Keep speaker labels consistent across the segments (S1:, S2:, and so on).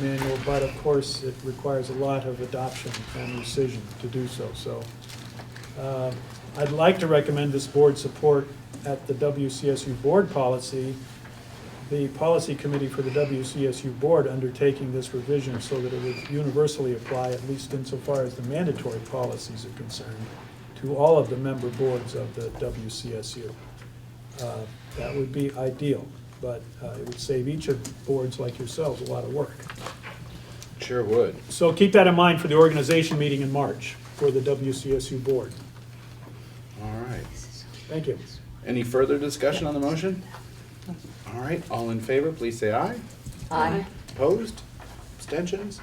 S1: manual, but of course, it requires a lot of adoption and rescission to do so, so. uh, I'd like to recommend this board support at the WCSU board policy, the policy committee for the WCSU board undertaking this revision so that it would universally apply, at least insofar as the mandatory policies are concerned, to all of the member boards of the WCSU. Uh, That would be ideal, but uh, it would save each of boards like yourselves a lot of work.
S2: Sure would.
S1: So keep that in mind for the organization meeting in March for the WCSU board.
S2: All right.
S1: Thank you.
S2: Any further discussion on the motion? All right, all in favor, please say aye.
S3: Aye.
S2: Opposed? Abstentions?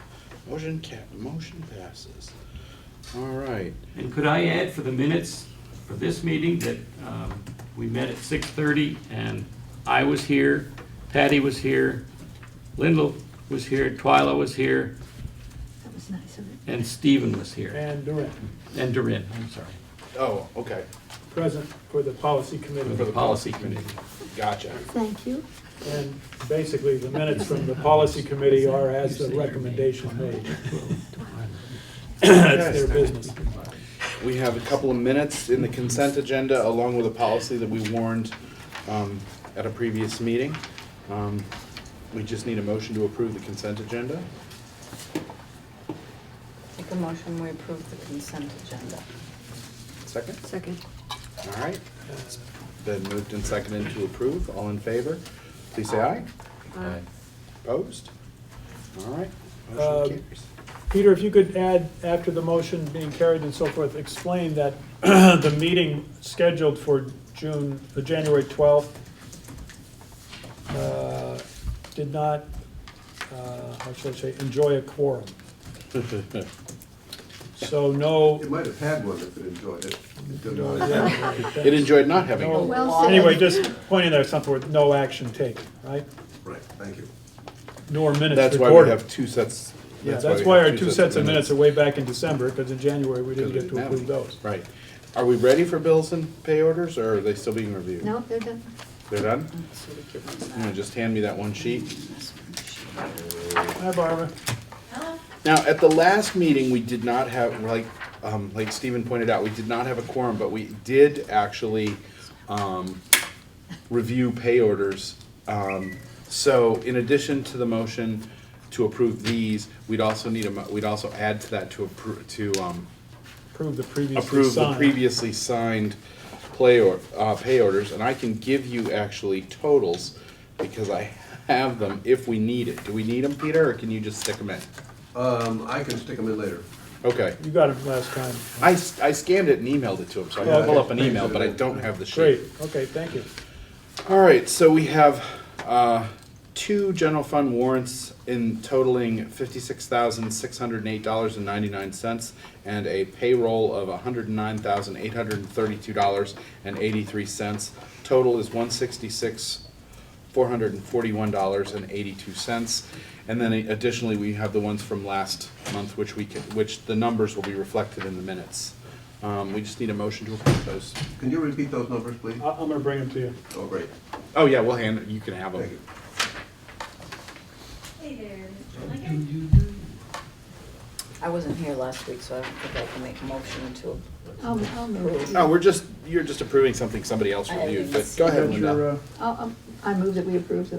S2: Motion ca, motion passes. All right.
S4: And could I add for the minutes for this meeting that um, we met at 6:30 and I was here, Patty was here, Lindell was here, Twyla was here,
S3: That was nice of it.
S4: and Stephen was here,
S1: And Durin,
S4: and Durin, I'm sorry,
S2: Oh, okay.
S1: present for the policy
S4: for the
S1: committee.
S4: policy committee.
S2: Gotcha.
S3: Thank you.
S1: And basically, the minutes from the policy committee are as the recommendation made. That's their business.
S2: We have a couple of minutes in the consent agenda along with a policy that we warned um, at a previous meeting. Um, We just need a motion to approve the consent agenda.
S5: Make a motion, we approve the consent agenda.
S2: Second?
S3: Second.
S2: All right. It's Been moved and seconded to approve. All in favor, please say aye.
S3: Aye.
S2: Opposed? All right.
S1: Uh,
S2: Motion carries.
S1: Peter, if you could add, after the motion being carried and so forth, explain that the meeting scheduled for June, uh, January 12th uh, did not, uh, how should I say, enjoy a quorum. So no,
S6: It might have had one if it enjoyed it. It did not.
S2: It enjoyed not having
S1: No.
S2: it.
S3: Well
S5: Law.
S3: said.
S1: anyway, just pointing there something with no action taken, right?
S6: Right, thank you.
S1: Nor minutes
S2: That's why we
S1: recorded.
S2: have two sets.
S1: Yeah, that's why
S2: we
S1: our
S2: have
S1: two sets of minutes are
S2: are
S1: way back in December, because in January, we didn't get to approve those.
S2: Right. Are we ready for bills and pay orders, or are they still being reviewed?
S3: No, they're done.
S2: They're done?
S5: So we give them
S2: You know,
S5: that.
S2: just hand me that one sheet.
S5: This one.
S1: Hi, Barbara.
S2: Now, at the last meeting, we did not have, like, um, like Stephen pointed out, we did not have a quorum, but we did actually, um, review pay orders. Um, so in addition to the motion to approve these, we'd also need a, mo- we'd also add to that to appro, to, um,
S1: Approve the previously
S2: approve the
S1: signed.
S2: previously signed play or, uh, pay orders, and I can give you actually totals because I have them if we need it. Do we need them, Peter, or can you just stick them in?
S6: Um, I can stick them in later.
S2: Okay.
S1: You got it last time.
S2: I, s- I scanned it and emailed it to him, so I can pull up an email, but I don't have the sheet.
S1: Great, okay, thank you.
S2: All right, so we have uh, two general fund warrants in totaling fifty-six thousand six hundred and eight dollars and ninety-nine cents, and a payroll of hundred and nine thousand eight hundred and thirty-two dollars and eighty-three cents. Total is one sixty-six four hundred and forty-one dollars and eighty-two cents. And then additionally, we have the ones from last month, which we can, which the numbers will be reflected in the minutes. Um, we just need a motion to approve those.
S6: Can you repeat those numbers, please?
S1: I- I'm gonna bring them to you.
S6: Oh, great,
S2: Oh yeah, we'll hand it. You can have them.
S6: thank you.
S7: Hey there, Mr. Lincoln.
S5: I wasn't here last week, so I don't think I can make a motion to
S3: I'll, I'll move.
S2: No, we're just, you're just approving something somebody else
S5: I
S2: reviewed, but
S5: just-
S2: go ahead, Linda.
S5: uh,
S3: I'll, I'll- I move that we approve the,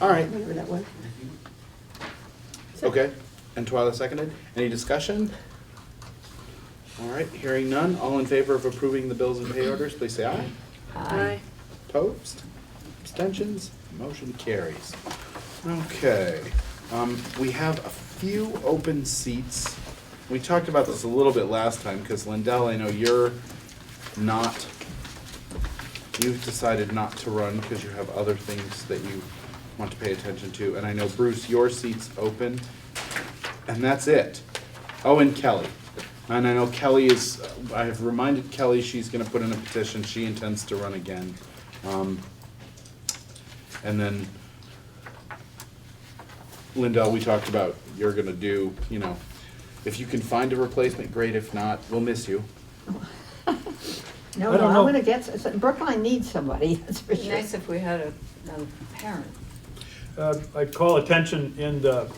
S2: All right,
S3: whatever that was.
S2: okay. And Twyla seconded. Any discussion? All right, hearing none. All in favor of approving the bills and pay orders, please say aye.
S5: Aye.
S2: Opposed? Abstentions? Motion carries. Okay, um, we have a few open seats. We talked about this a little bit last time, because Lindell, I know you're not, you've decided not to run because you have other things that you want to pay attention to, and I know Bruce, your seat's open, and that's it. Oh, and Kelly. And I know Kelly is, I have reminded Kelly she's gonna put in a petition, she intends to run again. Um, And then, Lindell, we talked about, you're gonna do, you know, if you can find a replacement, great, if not, we'll miss you.
S3: No,
S1: I
S3: no,
S1: don't
S3: I'm
S1: know.
S3: gonna get, s- s- Brookline needs somebody, that's for
S5: It'd be
S3: sure.
S5: nice if we had a, a parent.
S1: Uh, I call attention in the